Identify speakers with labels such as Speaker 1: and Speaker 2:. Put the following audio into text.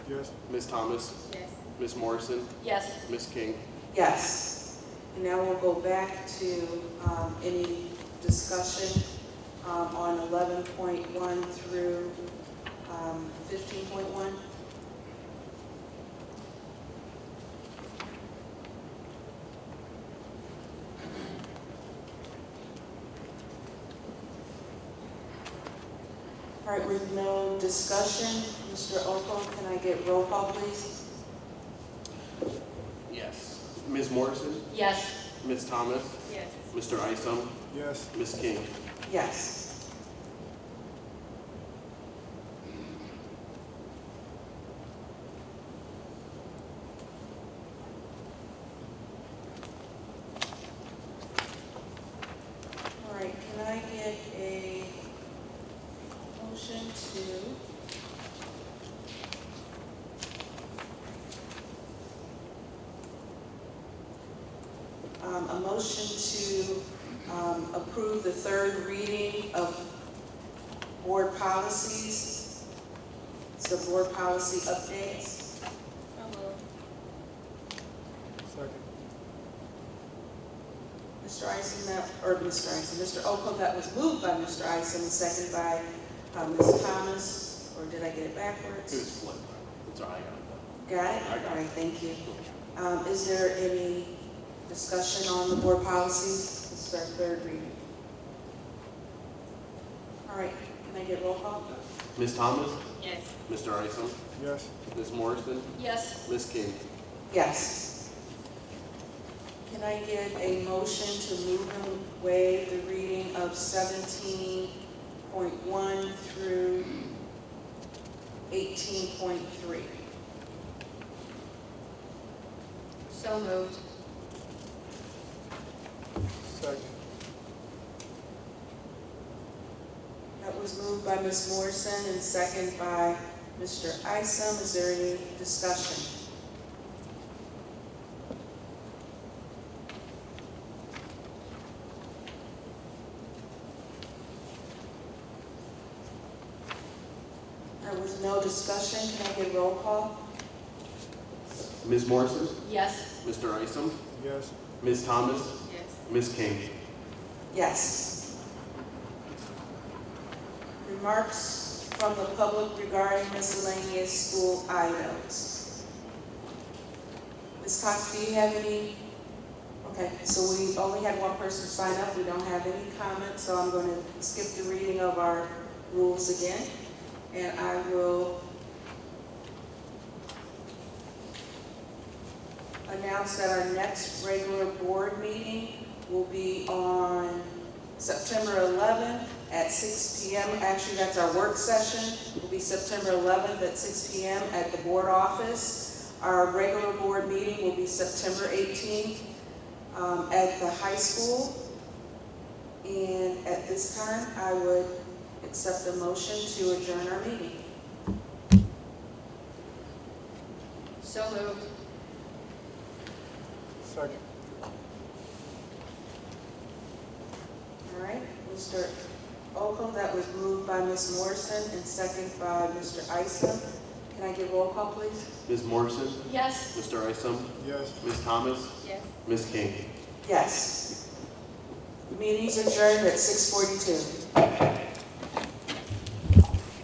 Speaker 1: Yes.
Speaker 2: Ms. Thomas,
Speaker 3: Yes.
Speaker 2: Ms. Morrison,
Speaker 3: Yes.
Speaker 2: Ms. King.
Speaker 4: Yes. And now we'll go back to um, any discussion um, on 11.1 through um, 15.1. All right, with no discussion, Mr. Oco, can I get roll call, please?
Speaker 2: Yes. Ms. Morrison,
Speaker 3: Yes.
Speaker 2: Ms. Thomas,
Speaker 3: Yes.
Speaker 2: Mr. Isom,
Speaker 1: Yes.
Speaker 2: Ms. King.
Speaker 4: Yes. All right, can I get a motion to? Um, a motion to, um, approve the third reading of board policies. It's the board policy updates.
Speaker 3: So moved.
Speaker 1: Second.
Speaker 4: Mr. Ison, that, or Mr. Ison, Mr. Oko, that was moved by Mr. Ison, and seconded by, uh Ms. Thomas, or did I get it
Speaker 2: It was
Speaker 4: backwards?
Speaker 2: flipped. It's all right. I
Speaker 4: Got it?
Speaker 2: I got it.
Speaker 4: All right, thank you.
Speaker 2: got it.
Speaker 4: Um, is there any discussion on the board policies? This is our third reading. All right, can I get roll call?
Speaker 2: Ms. Thomas,
Speaker 3: Yes.
Speaker 2: Mr. Isom,
Speaker 1: Yes.
Speaker 2: Ms. Morrison,
Speaker 3: Yes.
Speaker 2: Ms. King.
Speaker 4: Yes. Can I get a motion to move and waive the reading of seventeen point one through eighteen point three?
Speaker 3: So moved.
Speaker 1: Second.
Speaker 4: That was moved by Ms. Morrison and second by Mr. Isom. Is there any discussion? There was no discussion. Can I get roll call?
Speaker 2: Ms. Morrison,
Speaker 3: Yes.
Speaker 2: Mr. Isom,
Speaker 1: Yes.
Speaker 2: Ms. Thomas,
Speaker 3: Yes.
Speaker 2: Ms. King.
Speaker 4: Yes. Remarks from the public regarding miscellaneous school items. Ms. Cox, do you have any? Okay, so we only had one person sign up, we don't have any comments, so I'm going to skip the reading of our rules again, and I will announce that our next regular board meeting will be on September 11th at 6 PM. Actually, that's our work session, will be September 11th at 6 PM at the board office. Our regular board meeting will be September 18th um, at the high school. And at this time, I would accept the motion to adjourn our meeting.
Speaker 3: So moved.
Speaker 1: Second.
Speaker 4: All right, Mr. Oakham, that was moved by Ms. Morrison and second by Mr. Isom. Can I get roll call, please?
Speaker 2: Ms. Morrison,
Speaker 3: Yes.
Speaker 2: Mr. Isom,
Speaker 1: Yes.
Speaker 2: Ms. Thomas,
Speaker 3: Yes.
Speaker 2: Ms. King.
Speaker 4: Yes. Meeting's adjourned at six forty-two.